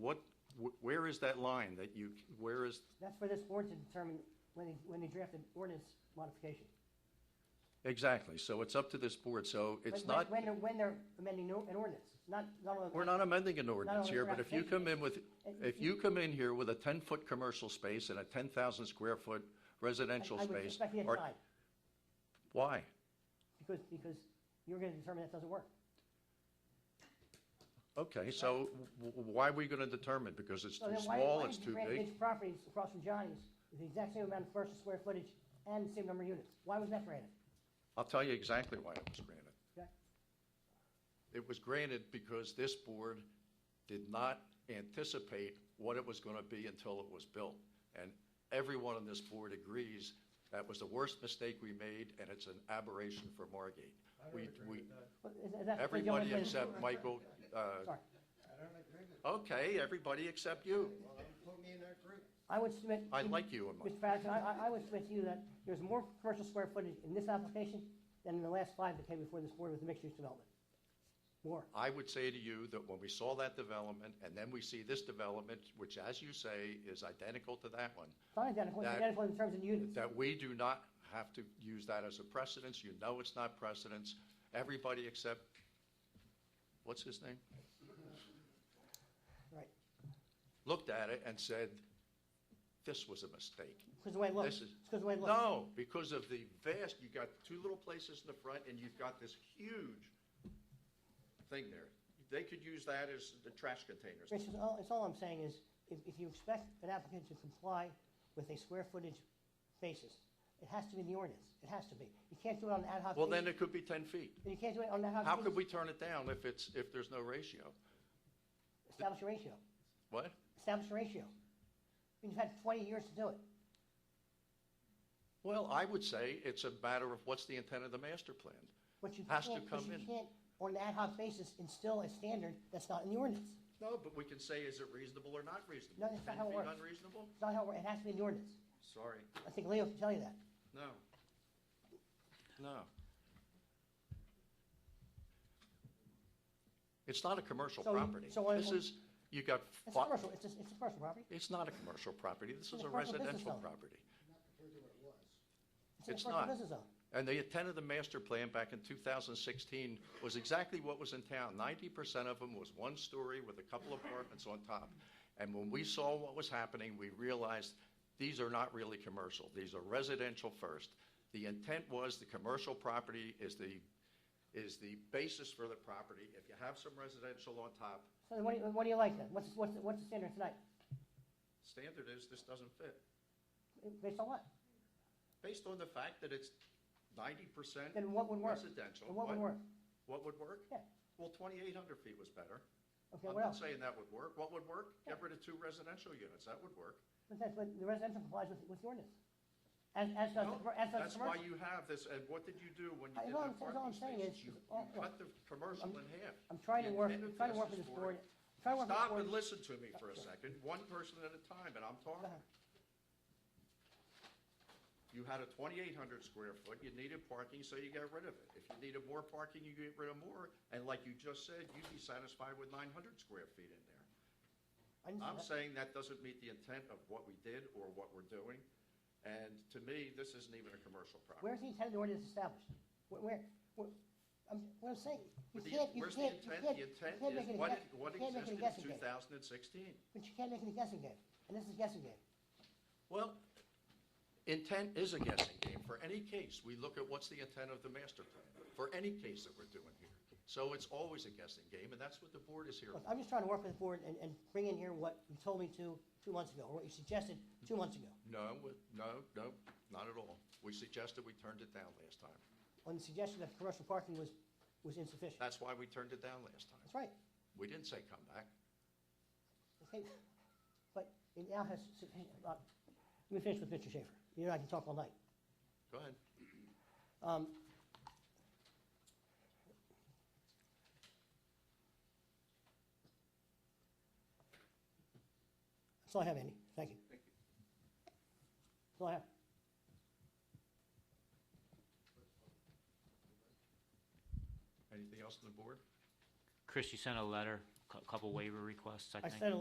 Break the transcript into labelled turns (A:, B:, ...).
A: what, wh- where is that line that you, where is,
B: That's for this board to determine when they, when they draft an ordinance modification.
A: exactly, so it's up to this board, so it's
B: When-
A: not,
B: When, they're- when they're amending no- an ordinance, not, not on.
A: we're not amending an ordinance
B: no,
A: here,
B: we're
A: but
B: not
A: if you
B: changing
A: come in with, if you come in here with a ten-foot commercial space and a ten thousand square foot residential
B: I would
A: space,
B: expect you to
A: or-
B: deny,
A: why?
B: because, because you're gonna determine that doesn't work.
A: Okay, so w- w- why are we gonna determine? Because it's
B: So
A: too
B: then why-
A: small,
B: why
A: it's
B: did you
A: too
B: grant
A: big?
B: Mitch Properties across from Johnny's, with the exact same amount of commercial square footage and the same number of units, why was that granted?
A: I'll tell you exactly why it was granted.
B: Okay.
A: It was granted because this board did not anticipate what it was going to be until it was built. And everyone on this board agrees that was the worst mistake we made, and it's an aberration for Margate. We, we,
B: But is- is that- is the only
A: everybody
B: way-
A: except Michael, uh,
B: Sorry,
C: I don't agree with,
A: okay, everybody except you.
C: well, don't put me in that group.
B: I would submit.
A: I like you in my,
B: Mr. Patterson, I, I- I would submit to you that there's more commercial square footage in this application than in the last five that came before this board with the mixed-use development. More.
A: I would say to you that when we saw that development, and then we see this development, which as you say, is identical to that one,
B: It's not identical, it's
A: That-
B: identical in terms of units.
A: that we do not have to use that as a precedence. You know it's not precedence. Everybody except, what's his name?
B: Right.
A: Looked at it and said, this was a mistake.
B: Because the way it looks,
A: This
B: it's
A: is-
B: because the way it looks.
A: No, because of the vast, you got two little places in the front and you've got this huge thing there. They could use that as the trash containers.
B: Rich, it's all, it's all I'm saying is, if, if you expect an applicant to comply with a square footage basis, it has to be in the ordinance, it has to be. You can't do it on an ad hoc.
A: Well, then
B: basis.
A: it could be ten feet.
B: You can't do it on an ad hoc.
A: How could
B: basis.
A: we turn it down if it's, if there's no ratio?
B: Establish a ratio,
A: What?
B: establish a ratio. And You've had twenty years to do it.
A: Well, I would say it's a matter of what's the intent of the master plan.
B: But you
A: Has to
B: can't, but
A: come
B: you
A: in.
B: can't, on an ad hoc basis, instill a standard that's not in the ordinance.
A: No, but we can say, is it reasonable or not reasonable?
B: No, that's not how it
A: 10 feet
B: works.
A: unreasonable?
B: It's not how, it has to be in the ordinance.
A: Sorry,
B: I think Leo can tell you that.
A: no. No. It's not a commercial
B: So you-
A: property.
B: so I-
A: This is, you got,
B: It's
A: fi-
B: commercial, it's a, it's a commercial property.
A: it's not a commercial property, this
B: It's
A: is
B: a
A: a
B: commercial business
A: residential
B: zone.
A: property.
B: in a
A: It's
B: commercial
A: not.
B: business zone.
A: And the intent of the master plan back in 2016 was exactly what was in town. 90% of them was one story with a couple apartments on top. And when we saw what was happening, we realized these are not really commercial. These are residential first. The intent was the commercial property is the, is the basis for the property. If you have some residential on top,
B: So then what do you, what do you like then? What's, what's, what's the standard tonight?
A: standard is this doesn't fit.
B: Based on what?
A: Based on the fact that it's 90%
B: Then what would work?
A: residential.
B: And what would
A: what-
B: work?
A: What would work?
B: Yeah.
A: Well, 2,800 feet was better.
B: Okay,
A: I'm
B: what
A: not
B: else?
A: saying that would work. What would work?
B: Yeah.
A: Get rid of two residential units. That would work.
B: But that's, but the residential complies with, with the ordinance. As, as does, the
A: No,
B: commer- as does
A: That's
B: the
A: why
B: commercial.
A: you have this, and what did you do when you
B: I-
A: did
B: all
A: the
B: I'm- that's all
A: parking
B: I'm saying
A: spaces?
B: is-
A: You
B: is-
A: you
B: oh,
A: cut the commercial in half.
B: I'm trying to
A: The
B: work,
A: intent of
B: trying to work with
A: this
B: this
A: is
B: board, trying to work with
A: Stop
B: this
A: and
B: board.
A: listen to me for a second, one person at a time, and I'm
B: Go
A: talking.
B: ahead.
A: You had a 2,800 square foot, you needed parking, so you got rid of it. If you needed more parking, you get rid of more, and like you just said, you'd be satisfied with 900 square feet in there.
B: I didn't say
A: I'm
B: that.
A: saying that doesn't meet the intent of what we did or what we're doing, and to me, this isn't even a commercial property.
B: Where's the intent of the ordinance established? Where, where, where, I'm, what I'm saying,
A: But
B: you
A: the-
B: can't, you
A: where's the
B: can't, you
A: intent?
B: can't,
A: The
B: you
A: intent is
B: can't make it a
A: what-
B: guess-
A: what
B: you can't make it a
A: existed in
B: guessing
A: 2016.
B: game. But you can't make it a guessing game, and this is a guessing game.
A: Well, intent is a guessing game. For any case, we look at what's the intent of the master plan, for any case that we're doing here. So it's always a guessing game, and that's what the board is here
B: Look,
A: for.
B: I'm just trying to work with the board and, and bring in here what you told me to two months ago, or what you suggested two months ago.
A: No, we- no, no, not at all. We suggested, we turned it down last time.
B: on the suggestion that commercial parking was, was insufficient.
A: That's why we turned it down last time.
B: That's right.
A: We didn't say come back.
B: Okay. But it now has sufficient, uh, let me finish with Mr. Schaefer. You know, I can talk all night.
A: Go ahead.
B: Um, That's all I have, Andy. Thank you. That's all I have.
A: Anything else on the board?
D: Chris, you sent a letter, a couple waiver requests, I
B: I
D: think.
B: sent a